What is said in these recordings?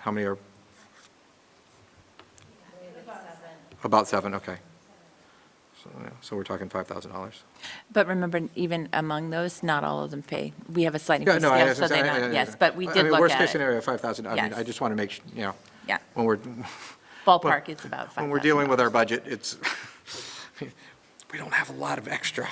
How many are? About seven, okay. So, yeah, So we're talking $5,000. But remember, even among those, not all of them pay. We have a slight Yeah, increase no, I- I- scale, so they I- I- not, yes, but we I did mean, look Worst case at it. scenario, 5,000, I mean, Yes. I just want to make, su- you know. Yeah. When we're, Ballpark, it's about five. when we're dealing with our budget, it's, we don't have a lot of extra.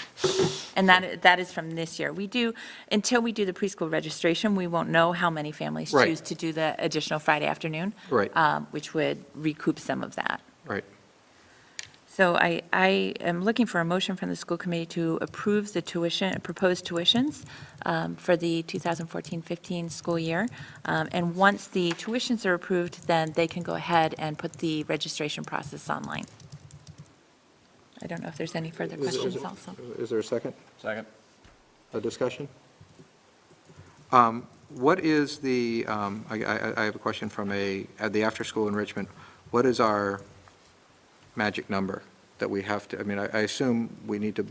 And that, that is from this year. We do, until we do the preschool registration, we won't know how many families Right. choose to do the additional Friday afternoon. Right. um, Which would recoup some of that. Right. So I, I am looking for a motion from the school committee to approve the tuition, proposed tuitions um, for the 2014-15 school year. Um, And once the tuitions are approved, then they can go ahead and put the registration process online. I don't know if there's any further Is- is- questions also. Is there a second? Second. a discussion? Um, What is the, um, I I- I have a question from a, at the after-school enrichment, what is our magic number that we have to, I mean, I I assume we need to,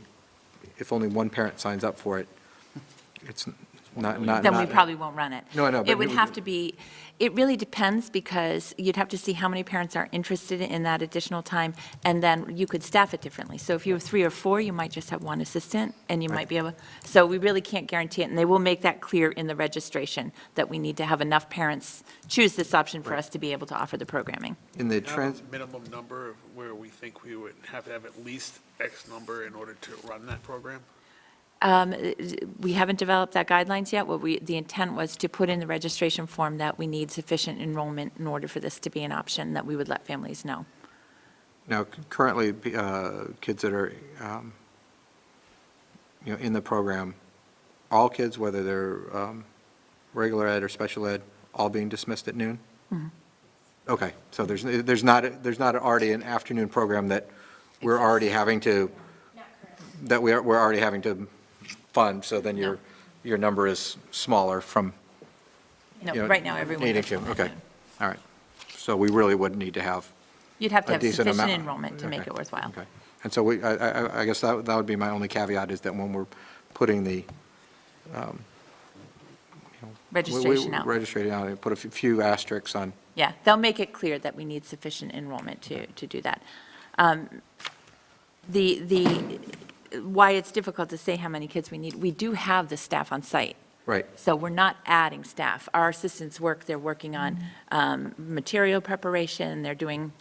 if only one parent signs up for it, it's not, not. Then we not- probably won't run it. No, I know, but It would you- have to be, it really depends, because you'd have to see how many parents are interested in that additional time, and then you could staff it differently. So if you have three or four, you might just have one assistant, and you might be able, so we really can't guarantee it, and they will make that clear in the registration, that we need to have enough parents choose this option for us to be able to offer the programming. In the Have a trans, minimum number of where we think we would have to have at least X number in order to run that program? Um, We haven't developed that guidelines yet. What we, the intent was to put in the registration form that we need sufficient enrollment in order for this to be an option, that we would let families know. now, currently, uh, kids that are, um, you know, in the program, all kids, whether they're um, regular ed or special ed, all being dismissed at noon? Mm-hmm. Okay, so there's, there's not, there's not already an afternoon program that we're already having to, that we are, we're already having to fund, so then your, No. your number is smaller from, No, you know. right now, everyone. Needing has to, enrollment. okay, all right. So we really would need to have You'd have a to have decent sufficient amount. enrollment to make Okay, it worthwhile. okay. And so we, I, I, I guess that, that would be my only caveat, is that when we're putting the. Registration out. Registration out, and put a few- few asterisks on, Yeah, they'll make it clear that we need sufficient enrollment to, to do that. Um, The, the, why it's difficult to say how many kids we need, we do have the staff on site. right, So we're not adding staff. Our assistants work, they're working on um, material preparation, they're doing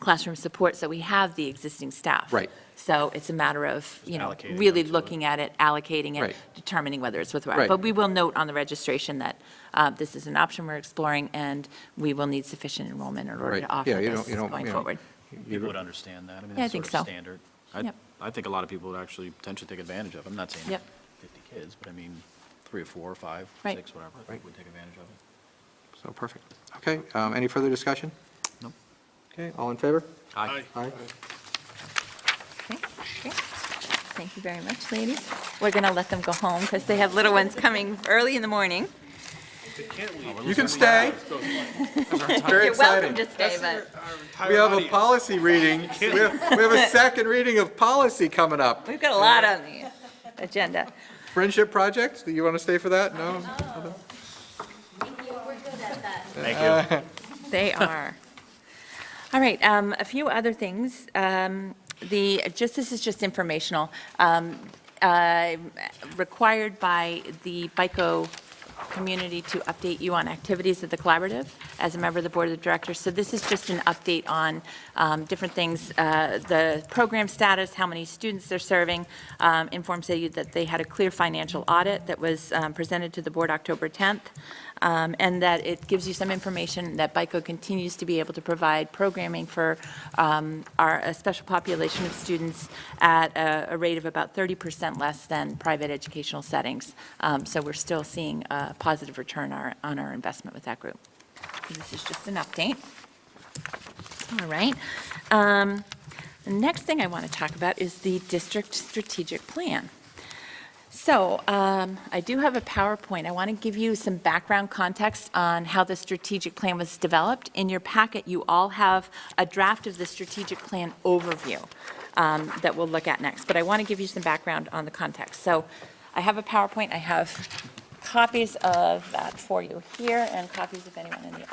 classroom support, so we have the existing staff. Right. So it's a matter of, you know, allocating really them to it. looking at it, allocating it, Right. determining whether it's worthwhile. Right. But we will note on the registration that uh, this is an option we're exploring, and we will need sufficient enrollment in order right. to offer Yeah, you this don't- you don't- going you know, forward. you People don't- would understand that. I mean, Yeah, I that's think sort of so. standard. I, Yep. I think a lot of people would actually potentially take advantage of it. I'm not saying Yep. 50 kids, but I mean, three or four or five, Right. six, whatever, I think would take advantage of it. So, perfect. Okay, um, any further discussion? Nope. Okay, all in favor? Aye. Aye. Okay, great. Thank you very much, ladies. We're going to let them go home, because they have little ones coming early in the morning. You can stay. Very You're welcome exciting. to stay, but. We have a policy reading, we have, we have a second reading of policy coming up. We've got a lot on the agenda. Friendship project, do you want to stay for that? No? We're good at that. Thank you. They are. All right, um, a few other things. Um, The, just, this is just informational. Um, uh, Required by the BICO community to update you on activities of the collaborative as a member of the board of directors. So this is just an update on um, different things, uh, the program status, how many students they're serving. Um, Informs you that they had a clear financial audit that was um, presented to the board October 10th, um, and that it gives you some information that BICO continues to be able to provide programming for um, our, a special population of students at a a rate of about 30% less than private educational settings. Um, So we're still seeing a positive return our- on our investment with that group. This is just an update. All right. Um, The next thing I want to talk about is the district strategic plan. So um, I do have a PowerPoint. I want to give you some background context on how the strategic plan was developed. In your packet, you all have a draft of the strategic plan overview um, that we'll look at next, but I want to give you some background on the context. So I have a PowerPoint, I have copies of that for you here, and copies if anyone in the